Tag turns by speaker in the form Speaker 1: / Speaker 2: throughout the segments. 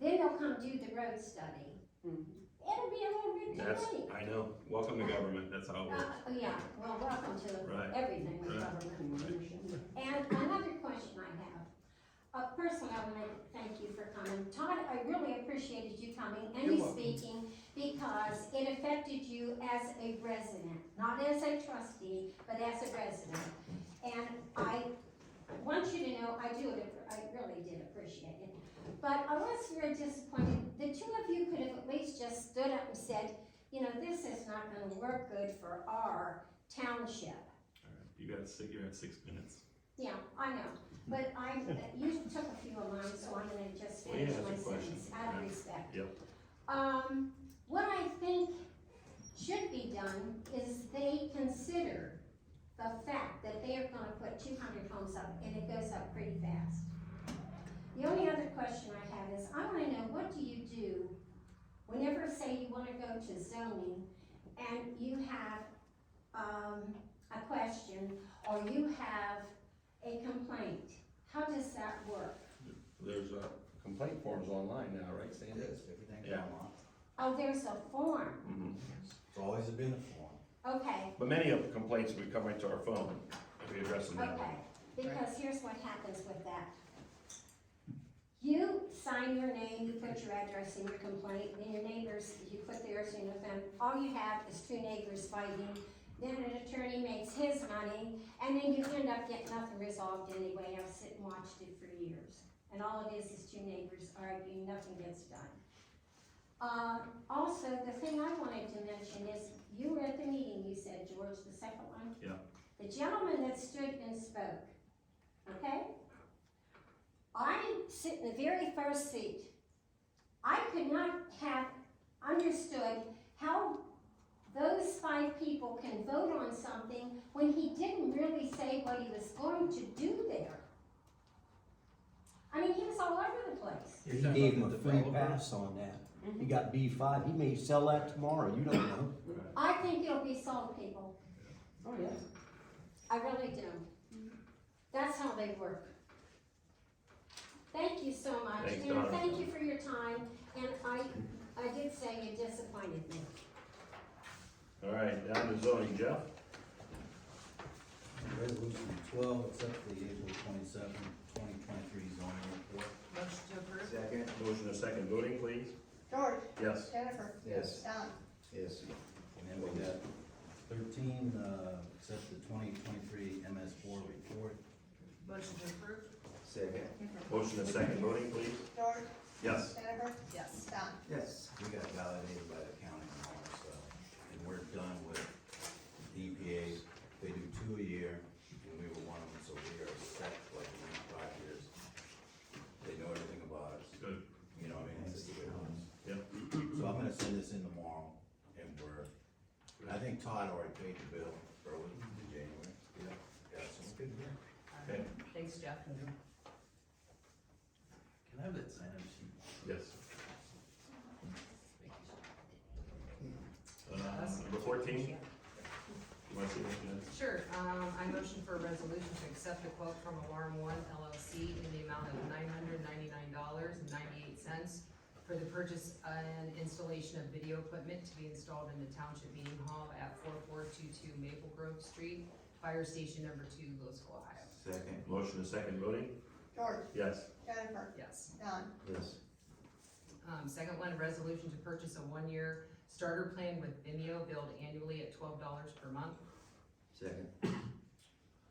Speaker 1: do the road study.
Speaker 2: Mhm.
Speaker 1: It'll be a little bit
Speaker 3: That's,
Speaker 1: too late.
Speaker 3: I know, welcome to government, that's how it
Speaker 1: Uh,
Speaker 3: works,
Speaker 1: oh, yeah, well, welcome to
Speaker 3: right?
Speaker 1: everything with
Speaker 3: Right.
Speaker 1: government. And another question I have. Uh, personally, I want to thank you for coming. Todd, I really appreciated you coming and
Speaker 2: You're
Speaker 1: you
Speaker 2: welcome.
Speaker 1: speaking because it affected you as a resident, not as a trustee, but as a resident. And I want you to know, I do, I really did appreciate it. But unless you're disappointed, the two of you could have at least just stood up and said, you know, this is not gonna work good for our township.
Speaker 3: Alright, You got six, you're at six minutes.
Speaker 1: Yeah, I know, but I, you took a few of mine, so I'm gonna just
Speaker 3: Well, yeah,
Speaker 1: finish
Speaker 3: that's
Speaker 1: my
Speaker 3: a question.
Speaker 1: sentence out of
Speaker 3: Yeah.
Speaker 1: respect.
Speaker 3: Yep.
Speaker 1: Um, what I think should be done is they consider the fact that they are gonna put two hundred homes up, and it goes up pretty fast. The only other question I have is, I wanna know, what do you do whenever, say, you wanna go to zoning, and you have, um, a question, or you have a complaint, how does that work?
Speaker 3: There's, uh, complaint forms online now, right,
Speaker 4: It
Speaker 3: Sandy?
Speaker 4: is, everything's
Speaker 3: Yeah.
Speaker 4: online.
Speaker 1: Oh, there's a form,
Speaker 3: Mhm.
Speaker 4: It's always been a form.
Speaker 1: okay,
Speaker 3: But many of the complaints would come into our phone, and we address them that way.
Speaker 1: okay, because here's what happens with that. You sign your name, you put your address in your complaint, then your neighbors, you put theirs, you know, then all you have is two neighbors fighting, then an attorney makes his money, and then you end up getting nothing resolved anyway, I've sit and watched it for years. And all it is is two neighbors arguing, nothing gets done. Uh, also, the thing I wanted to mention is, you were at the meeting, you said, George, the second one?
Speaker 3: Yeah.
Speaker 1: The gentleman that stood and spoke, okay? I sit in the very first seat. I could not have understood how those five people can vote on something when he didn't really say what he was going to do there. I mean, he was all over the place.
Speaker 4: He
Speaker 3: talking
Speaker 4: gave him
Speaker 3: about
Speaker 4: a
Speaker 3: the
Speaker 4: free
Speaker 3: developer?
Speaker 4: pass on that. He got B five, he may sell that tomorrow, you don't know.
Speaker 1: I think it'll be sold, people.
Speaker 2: Oh, yeah.
Speaker 1: I really do. That's how they work. Thank you so much,
Speaker 3: Thanks,
Speaker 1: and
Speaker 3: Donna.
Speaker 1: thank you for your time, and I, I did say you disappointed me.
Speaker 3: Alright, down to zoning, Jeff?
Speaker 4: Resolution twelve, accept the April twenty-seven, twenty twenty-three zoning report.
Speaker 5: Motion to approve?
Speaker 6: Second?
Speaker 3: Motion to second voting, please?
Speaker 5: George,
Speaker 3: Yes.
Speaker 5: Jennifer,
Speaker 6: Yes.
Speaker 5: Don.
Speaker 6: Yes.
Speaker 4: And then we got thirteen, uh, accept the twenty twenty-three MS four report.
Speaker 5: Motion to approve?
Speaker 6: Second?
Speaker 3: Motion to second voting, please?
Speaker 5: George,
Speaker 3: Yes.
Speaker 5: Jennifer? Yes. Don.
Speaker 6: Yes.
Speaker 4: We got validated by the county and all that stuff, and we're done with EPA, they do two a year, and we were one of them, so we are set like the next five years. They know everything about us,
Speaker 3: Good,
Speaker 4: you know, what I mean, it's just the way it works.
Speaker 3: yep.
Speaker 4: So I'm gonna send this in tomorrow, and we're, I think Todd already paid the bill early in January. Yeah. Yeah, so it's good.
Speaker 3: Okay.
Speaker 5: Thanks, Jeff.
Speaker 4: Can I have that sign up sheet?
Speaker 3: Yes. Uh, number fourteen? You wanna see what that is?
Speaker 5: Sure, um, I motion for a resolution to accept a quote from Alarm One LLC in the amount of nine hundred ninety-nine dollars and ninety-eight cents for the purchase and installation of video equipment to be installed in the Township Meeting Hall at four four two two Maple Grove Street, Fire Station Number Two, Louisville, Ohio.
Speaker 4: Second.
Speaker 3: Motion to second voting?
Speaker 7: George,
Speaker 3: Yes.
Speaker 7: Jennifer,
Speaker 5: Yes.
Speaker 7: Don,
Speaker 6: Yes.
Speaker 5: Um, second one, resolution to purchase a one-year starter plan with Vimeo billed annually at twelve dollars per month.
Speaker 6: Second?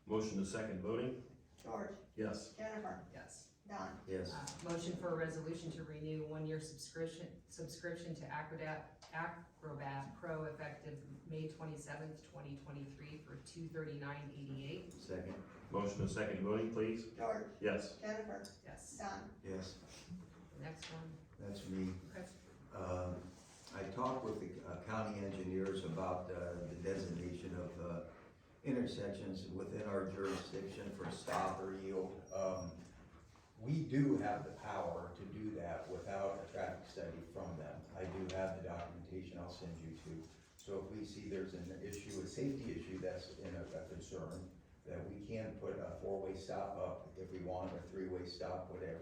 Speaker 3: Motion to second voting?
Speaker 7: George,
Speaker 3: Yes.
Speaker 7: Jennifer,
Speaker 5: Yes.
Speaker 7: Don,
Speaker 6: Yes.
Speaker 5: Uh, Motion for a resolution to renew one-year subscription, subscription to Acrobat, Acrobat Pro effective May twenty-seventh, twenty twenty-three for two thirty-nine eighty-eight.
Speaker 6: Second?
Speaker 3: Motion to second voting, please?
Speaker 7: George,
Speaker 3: Yes.
Speaker 7: Jennifer,
Speaker 5: Yes.
Speaker 7: Don,
Speaker 6: Yes.
Speaker 5: Next one.
Speaker 6: That's me.
Speaker 5: Okay.
Speaker 6: Um, I talked with the uh, county engineers about uh, the designation of uh, intersections within our jurisdiction for stop or yield. Um, We do have the power to do that without a traffic study from them. I do have the documentation I'll send you to. So if we see there's an issue, a safety issue that's in a a concern, that we can put a four-way stop up if we want, or three-way stop, whatever,